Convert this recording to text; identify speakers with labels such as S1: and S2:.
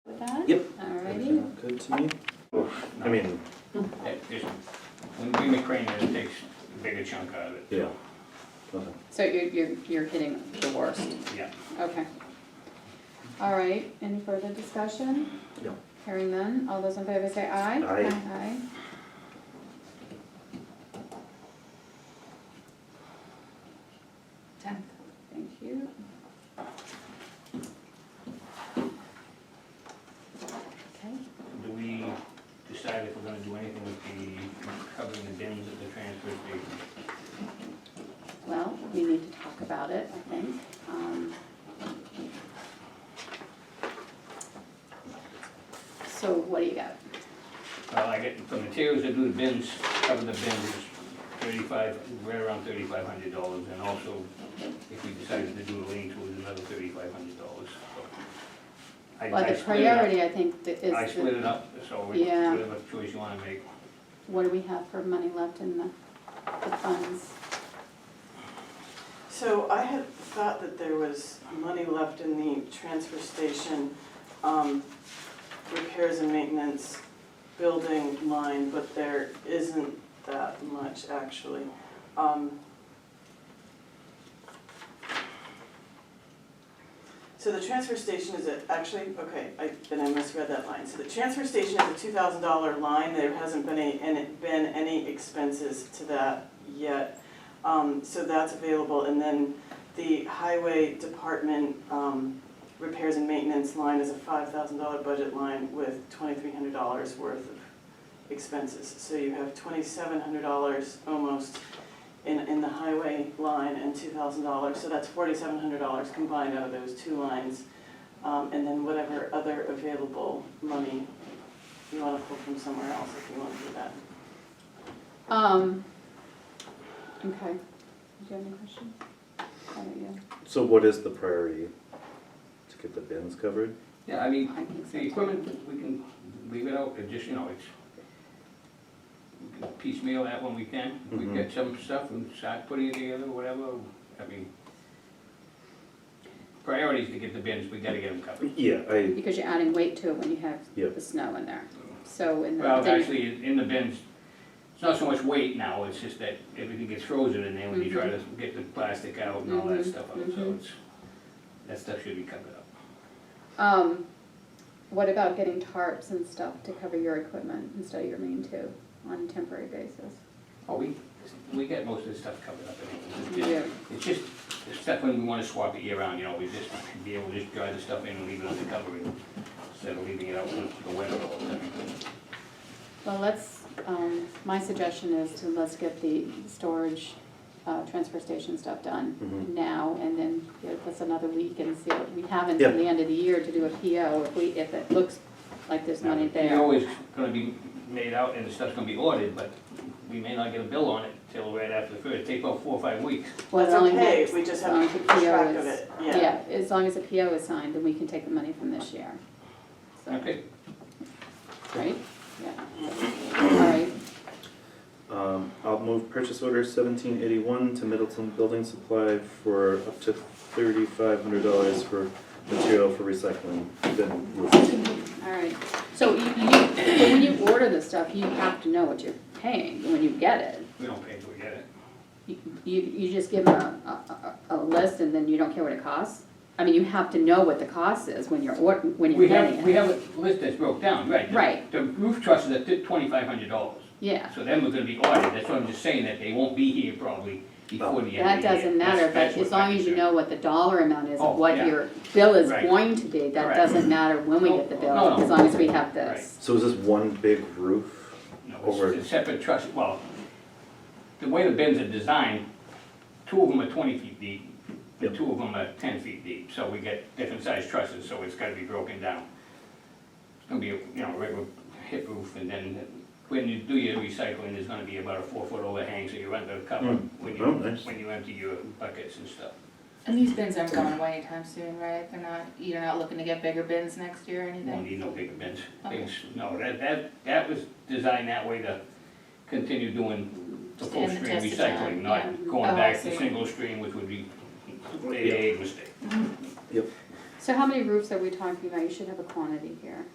S1: to me.
S2: I mean,
S3: That is, when we make crane, it takes a bigger chunk out of it.
S2: yeah.
S4: So you're, you're, you're hitting the worst,
S3: Yeah.
S4: okay. All right, any further discussion?
S2: No.
S4: Hearing none, all those in favor say aye.
S2: Aye.
S4: Aye. Tenth, thank you. Okay,
S3: Do we decide if we're gonna do anything with the covering the bins at the transfer station?
S4: well, we need to talk about it, I think. Um, So what do you got?
S3: Well, I get, the materials that do the bins, cover the bins, is thirty-five, right around thirty-five hundred dollars, and also, if we decided to do a lean to, is another thirty-five hundred dollars, so. I-
S4: Well,
S3: I
S4: the
S3: split it up.
S4: priority, I think, th-
S3: I
S4: is,
S3: split
S4: the-
S3: it up, so we-
S4: Yeah.
S3: whatever choice you wanna make.
S4: what do we have for money left in the, the funds?
S5: So I had thought that there was money left in the transfer station, um, repairs and maintenance, building line, but there isn't that much actually. Um, So the transfer station is a, actually, okay, I, then I misread that line. So the transfer station is a two thousand dollar line, there hasn't been any, and been any expenses to that yet. Um, so that's available, and then the highway department, um, repairs and maintenance line is a five thousand dollar budget line with twenty-three hundred dollars worth of expenses. So you have twenty-seven hundred dollars almost in, in the highway line and two thousand dollars, so that's forty-seven hundred dollars combined out of those two lines. Um, and then whatever other available money you wanna pull from somewhere else if you wanna do that.
S4: Um, okay, do you have any questions? How about you?
S2: So what is the priority? To get the bins covered?
S3: Yeah, I mean,
S4: I think so.
S3: The equipment, we can leave it out, it just, you know, it's we can piecemeal that when we can. We
S2: Mhm.
S3: get some stuff and start putting it together, whatever, I mean. Priorities to get the bins, we gotta get them covered.
S2: Yeah, I,
S4: Because you're adding weight to it when you
S2: Yep.
S4: have the snow in there, so in the.
S3: Well,
S4: then-
S3: actually, in the bins, it's not so much weight now, it's just that everything gets frozen in there when you try to
S4: Mm-hmm.
S3: get the plastic out and all that
S4: Mhm,
S3: stuff out, so
S4: mhm.
S3: it's, that stuff should be covered up.
S4: Um, what about getting tarps and stuff to cover your equipment instead of your main two on a temporary basis?
S3: Oh, we, we get most of the stuff covered up anyway. It's
S4: Yeah.
S3: just- It's just, the stuff when we wanna swap it year round, you know, we just be able to just drive the stuff in and leave it under cover and- instead of leaving it out in the winter all the time.
S4: Well, let's, um, my suggestion is to let's get the storage, uh, transfer station stuff done
S2: Mhm.
S4: now, and then give us another week and see what, we have until
S2: Yeah.
S4: the end of the year to do a PO, if we, if it looks like there's money
S3: It's
S4: there.
S3: always gonna be made out and the stuff's gonna be ordered, but we may not get a bill on it till right after the first, It'd take about four or five weeks.
S4: Well, it's
S5: That's
S4: only
S5: okay,
S4: next-
S5: we just
S4: as
S5: have
S4: long
S5: to
S4: as the
S5: keep track
S4: PO
S5: of
S4: is-
S5: it,
S4: Yeah, as long as a PO is signed, then we can take the money from this year. So,
S3: Okay,
S4: Right, yeah. All right,
S2: um, I'll move purchase order seventeen eighty-one to Middleton Building Supply for up to thirty-five hundred dollars for material for recycling. Then move.
S4: all right. So you, you, but when you order the stuff, you have to know what you're paying when you get it.
S3: we don't pay till we get it.
S4: You, you just give them a, a, a a list and then you don't care what it costs? I mean, you have to know what the cost is when you're, ord- when you're
S3: We have,
S4: getting
S3: we
S4: it.
S3: have a list that's broke down, right? The-
S4: Right.
S3: The roof trusses are twenty-five hundred dollars.
S4: Yeah,
S3: So then we're gonna be audited, that's what I'm just saying, that they won't be here probably before the end of the year.
S4: that doesn't matter,
S3: That's-
S4: but
S3: that's
S4: as
S3: what
S4: long
S3: I'm
S4: as you
S3: concerned.
S4: know what the dollar amount is
S3: Oh,
S4: of what
S3: yeah.
S4: your bill is
S3: Right.
S4: going to be, that
S3: Right.
S4: doesn't matter when we
S3: No,
S4: get the
S3: no,
S4: bill,
S3: no.
S4: as long as we have this.
S2: So is this one big roof?
S3: No, it's- it's separate trust, well, the way the bins are designed, two of them are twenty feet deep, and
S2: Yep.
S3: two of them are ten feet deep, so we get different sized trusses, so it's gotta be broken down. It's gonna be, you know, regular hip roof, and then when you do your recycling, there's gonna be about a four foot overhang, so you're under cover
S2: Mm.
S3: when
S2: Oh,
S3: you,
S2: nice.
S3: when you empty your buckets and stuff.
S6: And these bins aren't going away anytime soon, right? They're not, you're not looking to get bigger bins next year or
S3: Won't
S6: anything?
S3: need no bigger bins,
S6: Okay.
S3: Things- no, that, that, that was designed that way to continue doing the
S6: Just
S3: full
S6: end the
S3: stream
S6: test of time,
S3: recycling,
S6: yeah.
S3: not going
S6: Oh, I
S3: back to
S6: see.
S3: single stream, which would be a mistake.
S4: So how many roofs are we talking about? You should have a quantity here.